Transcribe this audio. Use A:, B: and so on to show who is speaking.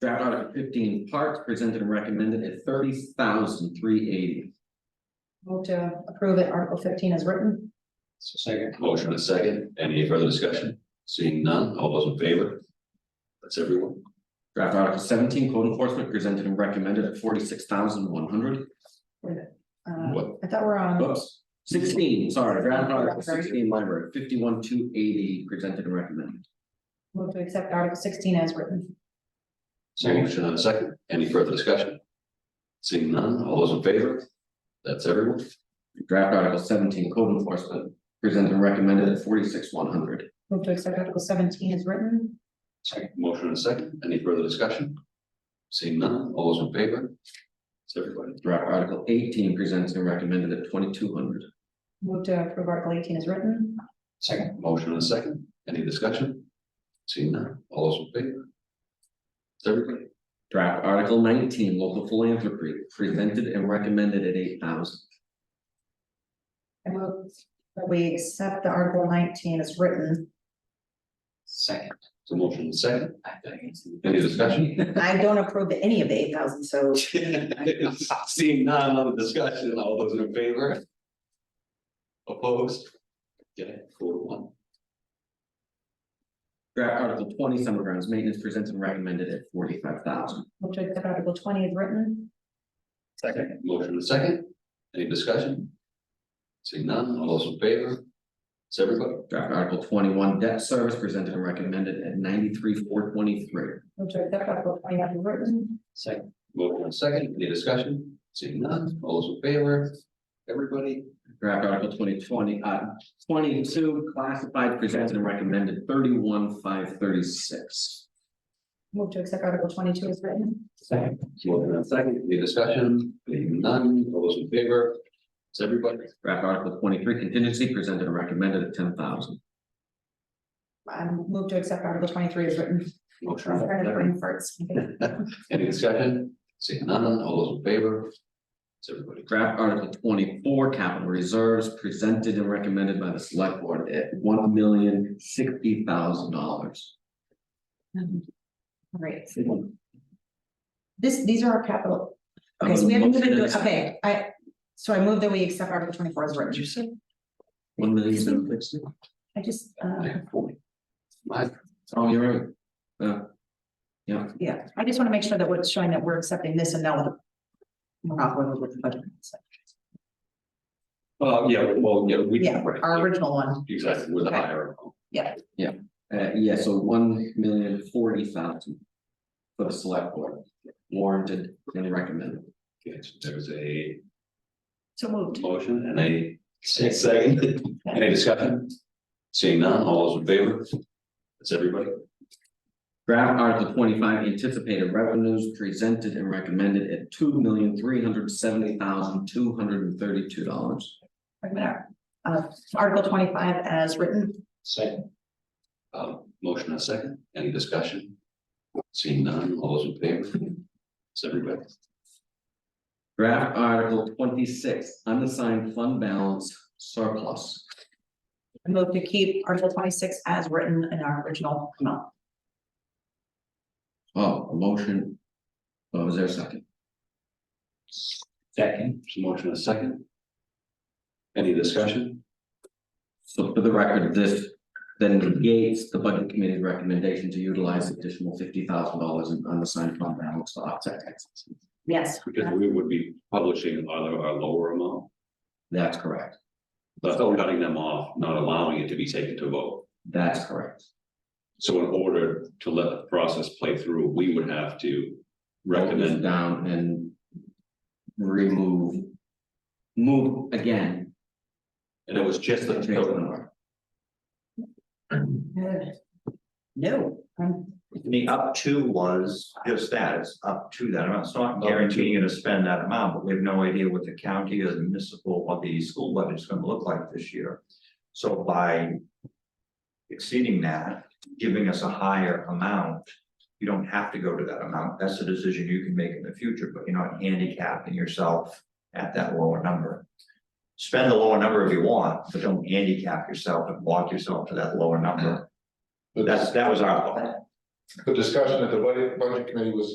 A: Draft Article fifteen, parks presented and recommended at thirty thousand three eighty.
B: Move to approve it, Article fifteen is written.
C: Second.
D: Motion and second, any further discussion? Seeing none, all those in favor? That's everyone.
A: Draft Article seventeen, code enforcement presented and recommended at forty six thousand one hundred.
B: Uh,
D: What?
B: I thought we're on,
A: Oops, sixteen, sorry, Draft Article sixteen, library, fifty one two eighty, presented and recommended.
B: move to accept Article sixteen as written.
D: Motion and second, any further discussion? Seeing none, all those in favor? That's everyone.
A: Draft Article seventeen, code enforcement presented and recommended at forty six one hundred.
B: Move to accept Article seventeen as written.
D: Second. Motion and second, any further discussion? Seeing none, all those in favor? That's everybody.
A: Draft Article eighteen presented and recommended at twenty two hundred.
B: Move to approve Article eighteen as written.
C: Second.
D: Motion and second, any discussion? Seeing none, all those in favor? That's everybody.
A: Draft Article nineteen, local philanthropy, presented and recommended at eight thousand.
B: I move that we accept the Article nineteen as written.
C: Second.
D: So motion and second, any discussion?
B: I don't approve any of the eight thousand, so.
D: Seeing none, on the discussion, all those in favor? Opposed? Okay, four to one.
A: Draft Article twenty, summer grounds maintenance presented and recommended at forty-five thousand.
B: Move to accept Article twenty as written.
C: Second.
D: Motion is second, any discussion? Seeing none, all those in favor? It's everybody,
A: Draft Article twenty-one, debt service presented and recommended at ninety-three, four twenty-three.
B: Move to accept Article twenty as written.
C: Second.
D: motion is second, any discussion? Seeing none, all those in favor? Everybody,
A: Draft Article twenty twenty, uh, twenty-two, classified presented and recommended thirty-one, five thirty-six.
B: Move to accept Article twenty-two as written.
C: Second.
D: motion is second, any discussion? Seeing none, all those in favor? It's everybody,
A: Draft Article twenty-three, contingency presented and recommended at ten thousand.
B: Um, move to accept Article twenty-three as written.
D: motion
B: I'm
D: is
B: starting to
D: second.
B: bring farts.
D: Any discussion? Seeing none, all those in favor? It's everybody.
A: Draft Article twenty-four, capital reserves presented and recommended by the select board at one million, sixty thousand dollars.
B: All right. This, these are our capital. Okay,
D: Um,
B: so we haven't even, do- okay, I, so I move that we accept Article twenty-four as written.
D: say?
A: One million, seven
B: I just, uh,
D: My,
A: Oh, you're right. Uh, yeah,
B: yeah, I just want to make sure that what's showing that we're accepting this and not what the. We're not going with the budget. so,
D: uh, yeah, well, yeah, we.
B: Yeah,
D: right,
B: our original one,
D: Exactly, we're the
B: Okay.
D: higher.
A: uh, yeah, so one million forty thousand. For the select board, warranted and recommended.
D: Okay, so There's a
B: so moved.
D: motion and a second. Any discussion? Seeing none, all those in favor? That's everybody.
A: Draft Article twenty-five, anticipated revenues presented and recommended at two million three hundred seventy thousand two hundred and thirty-two dollars.
B: Wait a minute. Uh, Article twenty-five as written,
C: Second.
D: Um, motion and a second, any discussion? Seeing none, all those in favor? It's everybody.
A: Draft Article twenty-six, unassigned fund balance surplus.
B: I move to keep Article twenty-six as written in our original amount.
A: Oh, a motion. Oh, is there a second?
C: Second.
D: So Motion and a second. Any discussion?
A: So for the record, this then negates the budget committee's recommendation to utilize additional fifty thousand dollars in unassigned fund balance to offset taxes.
B: Yes.
D: Because we would be publishing our, our lower amount,
A: That's correct.
D: but still cutting them off, not allowing it to be taken to vote.
A: That's correct.
D: So in order to let the process play through, we would have to
A: Vote this
D: recommend,
A: Down and remove, move again.
D: and it was just
A: Take the
D: the.
A: number.
E: No,
B: Um,
E: the up to was just that, it's up to that amount, it's not guaranteeing you to spend that amount, but we have no idea what the county or the municipal or the school budget is gonna look like this year. So by. Exceeding that, giving us a higher amount, you don't have to go to that amount, that's a decision you can make in the future, but you're not handicapping yourself at that lower number. Spend the lower number if you want, but don't handicap yourself and walk yourself to that lower number,
F: The
E: that's, that was our thought.
F: the discussion at the budget, budget committee was